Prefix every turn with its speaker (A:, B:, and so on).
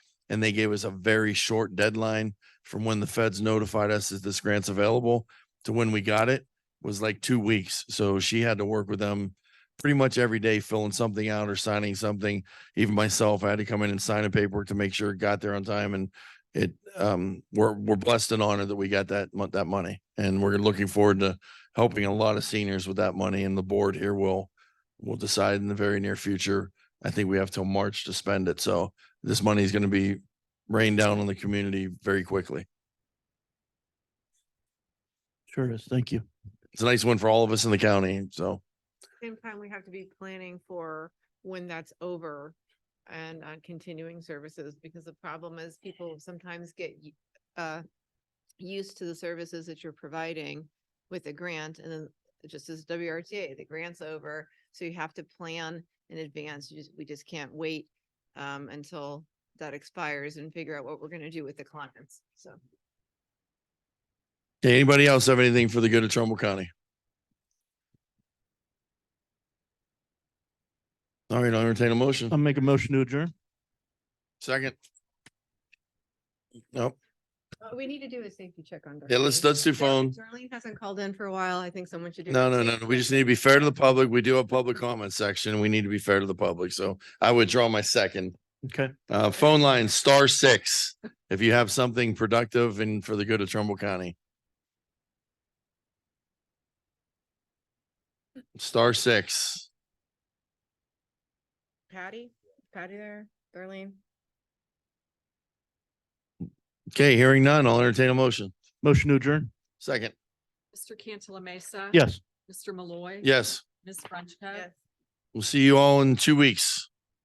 A: and they gave us a very short deadline from when the feds notified us that this grant's available to when we got it was like two weeks. So she had to work with them pretty much every day, filling something out or signing something. Even myself, I had to come in and sign a paperwork to make sure it got there on time. And it, um, we're, we're blessed and honored that we got that, mon- that money. And we're looking forward to helping a lot of seniors with that money. And the board here will, will decide in the very near future. I think we have till March to spend it. So this money is going to be rained down on the community very quickly.
B: Sure is. Thank you.
A: It's a nice one for all of us in the county. So.
C: Same time, we have to be planning for when that's over and on continuing services, because the problem is people sometimes get y- uh used to the services that you're providing with the grant and then just as WRTA, the grant's over, so you have to plan in advance. You just, we just can't wait um until that expires and figure out what we're gonna do with the clients, so.
A: Okay, anybody else have anything for the good of Trumbull County? All right, I'll entertain a motion.
B: I'll make a motion to adjourn.
A: Second. Nope.
C: We need to do a safety check on.
A: Yeah, let's- Darlene. let's do phone.
C: Darlene hasn't called in for a while. I think someone should do.
A: No,
C: a
A: no, no,
C: safety
A: no. We
C: check.
A: just need to be fair to the public. We do have public comment section. We need to be fair to the public. So I withdraw my second.
B: Okay.
A: Uh, phone line star six, if you have something productive and for the good of Trumbull County. Star six.
C: Patty, Patty there, Darlene.
A: Okay, hearing none, I'll entertain a motion.
B: Motion to adjourn.
A: Second.
D: Mr. Cantala Mesa.
B: Yes.
D: Mr. Malloy.
A: Yes.
D: Ms. Frenchco.
C: Yes.
A: We'll see you all in two weeks.